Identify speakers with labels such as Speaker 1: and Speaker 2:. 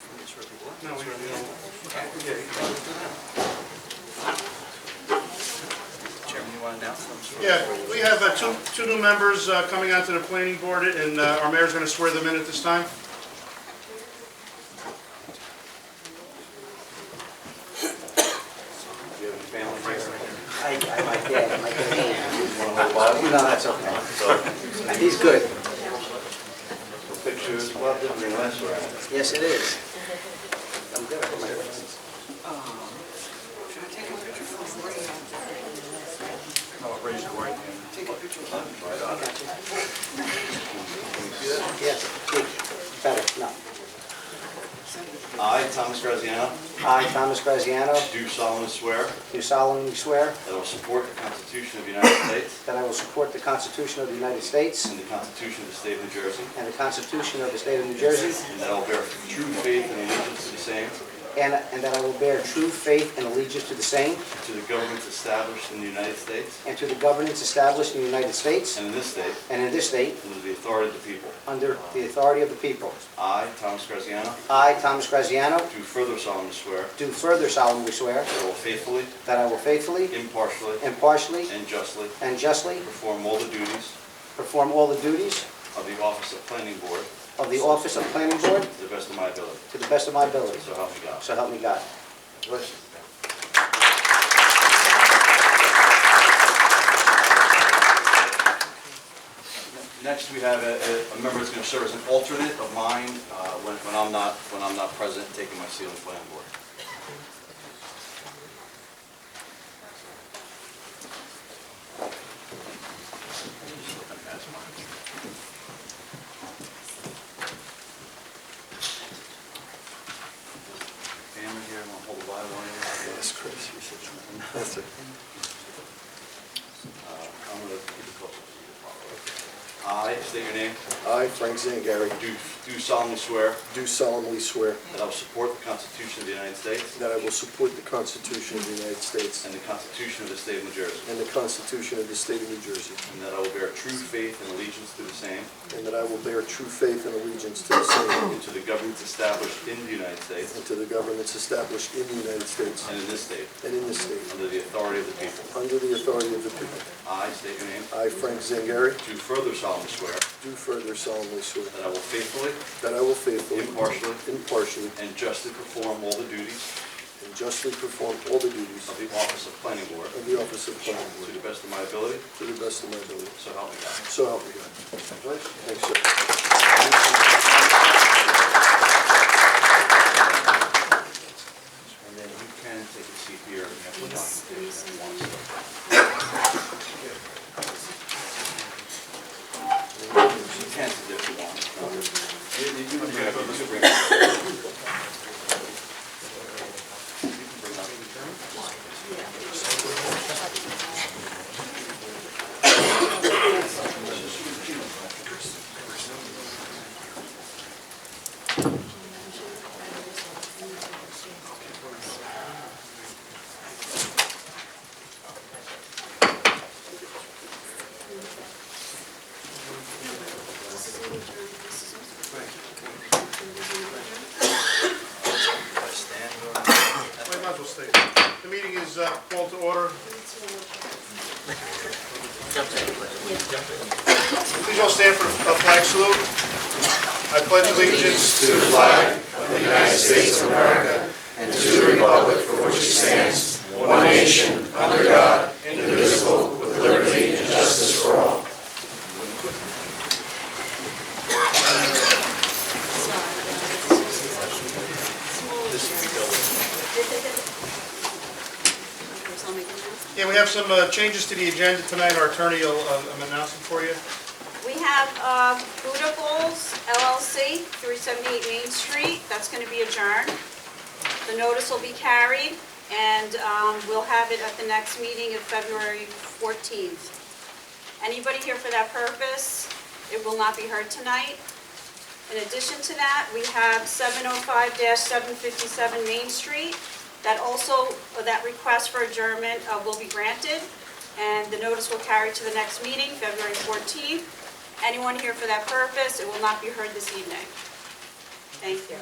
Speaker 1: That's where we want.
Speaker 2: No, we don't.
Speaker 1: Okay. Chairman, you want to announce them?
Speaker 2: Yeah, we have uh, two, two new members uh, coming onto the planning board, and uh, our mayor's going to swear them in at this time.
Speaker 3: I, I, my dad, my dad. Well, no, that's okay. So, He's good.
Speaker 4: Picture is a lot different than last round.
Speaker 3: Yes, it is. I'm good. I put my glasses.
Speaker 1: No, raise your right hand.
Speaker 3: Yes, good. better, no.
Speaker 4: I, Thomas Graziano,
Speaker 3: I, Thomas Graziano,
Speaker 4: do solemnly swear
Speaker 3: do solemnly swear
Speaker 4: that I will support the Constitution of the United States
Speaker 3: that I will support the Constitution of the United States
Speaker 4: and the Constitution of the State of New Jersey,
Speaker 3: and the Constitution of the State of New Jersey,
Speaker 4: and that I will bear true faith and allegiance to the same,
Speaker 3: and and that I will bear true faith and allegiance to the same
Speaker 4: and to the governments established in the United States
Speaker 3: and to the governments established in the United States
Speaker 4: and in this state,
Speaker 3: and in this state,
Speaker 4: under the authority of the people.
Speaker 3: under the authority of the people.
Speaker 4: I, Thomas Graziano,
Speaker 3: I, Thomas Graziano,
Speaker 4: do further solemnly swear
Speaker 3: do further solemnly swear
Speaker 4: that I will faithfully,
Speaker 3: that I will faithfully,
Speaker 4: impartially,
Speaker 3: impartially,
Speaker 4: and justly
Speaker 3: and justly
Speaker 4: perform all the duties
Speaker 3: perform all the duties
Speaker 4: of the office of planning board
Speaker 3: of the office of planning board
Speaker 4: to the best of my ability.
Speaker 3: to the best of my ability.
Speaker 4: So help me God.
Speaker 3: So help me God.
Speaker 4: Next, we have a a- a member that's going to serve as an alternate of mine uh, when when I'm not, when I'm not present, taking my seat on the planning board. Family here, I'm going to hold the Bible on you. Yes, Chris. Uh, I'm going to keep it close. I state your name.
Speaker 5: I, Frank Zangari,
Speaker 4: Do do solemnly swear
Speaker 5: do solemnly swear
Speaker 4: that I will support the Constitution of the United States
Speaker 5: that I will support the Constitution of the United States
Speaker 4: and the Constitution of the State of New Jersey,
Speaker 5: and the Constitution of the State of New Jersey,
Speaker 4: and that I will bear true faith and allegiance to the same
Speaker 5: and that I will bear true faith and allegiance to the same
Speaker 4: and to the governments established in the United States
Speaker 5: and to the governments established in the United States
Speaker 4: and in this state,
Speaker 5: and in this state,
Speaker 4: under the authority of the people.
Speaker 5: under the authority of the people.
Speaker 4: I state your name.
Speaker 5: I, Frank Zangari,
Speaker 4: Do further solemnly swear
Speaker 5: do further solemnly swear
Speaker 4: that I will faithfully
Speaker 5: that I will faithfully,
Speaker 4: Impartially.
Speaker 5: impartially,
Speaker 4: and justly perform all the duties
Speaker 5: and justly perform all the duties
Speaker 4: of the office of planning board
Speaker 5: of the office of planning
Speaker 4: to
Speaker 5: board
Speaker 4: the best of my ability,
Speaker 5: to the best of my ability.
Speaker 4: so help me God.
Speaker 5: So help me God. Thanks, sir.
Speaker 4: And then you can take a seat here. and have a documentation if you want. You can sit there if you want. You- you- you can bring up- you can bring up- you can bring up-
Speaker 2: Well, you might as well stay. The meeting is uh, called to order. Please all stand for a flag salute. I pledge allegiance to Yeah, we have some uh, changes to the agenda tonight. Our attorney will uh, announce them for you.
Speaker 6: We have uh, Buddha Bowls LLC, 378 Main Street, that's going to be adjourned. The notice will be carried, and um, we'll have it at the next meeting of February 14th. Anybody here for that purpose, it will not be heard tonight. In addition to that, we have 705-757 Main Street, that also, uh, that request for adjournment uh, will be granted, and the notice will carry to the next meeting, February 14th. Anyone here for that purpose, it will not be heard this evening. Thank you.